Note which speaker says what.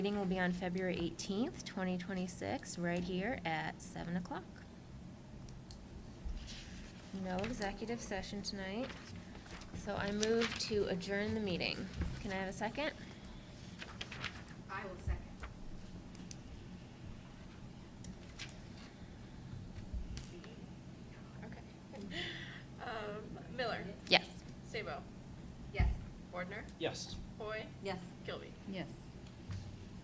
Speaker 1: Meeting will be on February 18th, 2026, right here at 7 o'clock. No executive session tonight, so I move to adjourn the meeting. Can I have a second?
Speaker 2: I will second.
Speaker 3: Okay. Um, Miller,
Speaker 1: Yes.
Speaker 3: Sabo,
Speaker 2: Yes.
Speaker 3: Bordner,
Speaker 4: Yes.
Speaker 3: Hoy,
Speaker 2: Yes.
Speaker 3: Kilby.
Speaker 5: Yes.